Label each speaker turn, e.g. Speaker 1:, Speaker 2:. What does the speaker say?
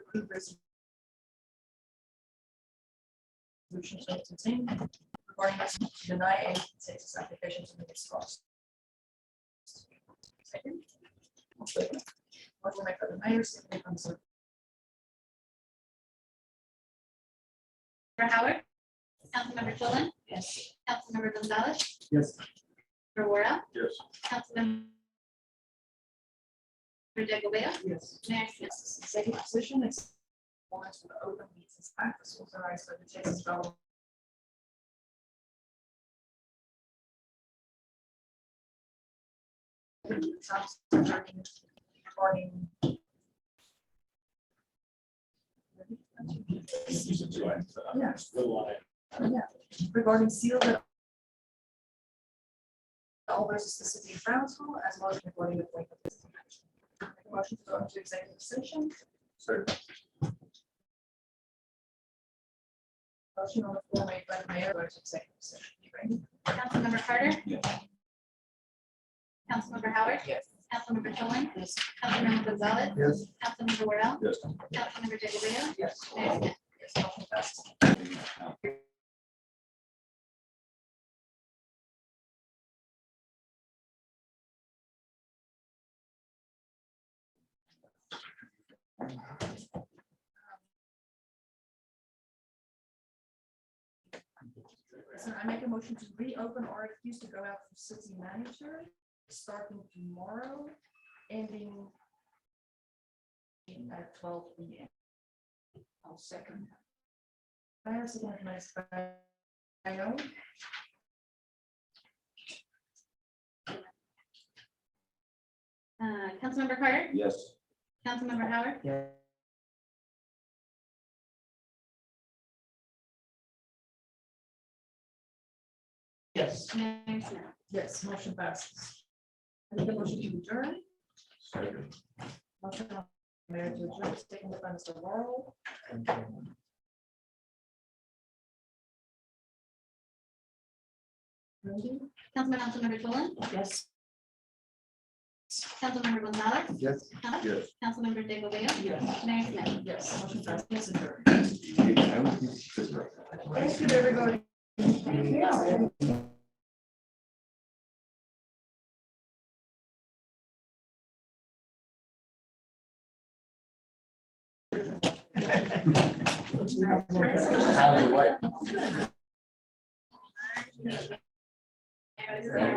Speaker 1: approve resolution. seventeen regarding resolution to deny any census application to the Scotts. Second. Motion by Councilman Myers, second by Councilman
Speaker 2: Member Howard. Councilmember Dolan. Yes. Councilmember Gonzalez.
Speaker 3: Yes.
Speaker 2: Member Worel.
Speaker 4: Yes.
Speaker 2: Councilmember Digglebale.
Speaker 1: Yes.
Speaker 2: Mayor Smith.
Speaker 1: Executive session is warrants for the open meetings act as authorized by the Texas Government. Regarding.
Speaker 4: These are two items. uh,
Speaker 1: Yes.
Speaker 4: Little line.
Speaker 1: Yeah, regarding seal that. All versus the city council as well as regarding the point of this. action. Motion to go into executive session,
Speaker 4: Sorry.
Speaker 1: motion on the floor made by the mayor, go to executive session. You ready?
Speaker 2: Councilmember Carter. Councilmember Howard.
Speaker 1: Yes.
Speaker 2: Councilmember Dolan. Yes. Councilmember Gonzalez. Yes. Councilmember Worel.
Speaker 4: Yes.
Speaker 2: Councilmember Digglebale.
Speaker 1: Yes.
Speaker 2: Mayor Smith.
Speaker 1: Yes, motion passes. So I make a motion to reopen RFQs to go out for city manager, starting tomorrow, ending at twelve P M. I'll second. I have second my I know.
Speaker 2: Uh, Councilmember Carter.
Speaker 4: Yes.
Speaker 2: Councilmember Howard.
Speaker 1: Yeah. Yes.
Speaker 2: Mayor Smith.
Speaker 1: Yes, motion passes. I make a motion to adjourn.
Speaker 4: Sorry.
Speaker 1: Motion on Mayor to adjourn, second by Mr. Laurel. Randy?
Speaker 2: Councilmember Councilmember Dolan.
Speaker 1: Yes.
Speaker 2: Councilmember Gonzalez.
Speaker 3: Yes.
Speaker 4: Yes.
Speaker 2: Councilmember Digglebale.
Speaker 1: Yes.
Speaker 2: Mayor Smith.
Speaker 1: Yes, motion passes. adjourned.
Speaker 3: Thank
Speaker 1: Thank you, everybody. Yeah.
Speaker 4: How do you like?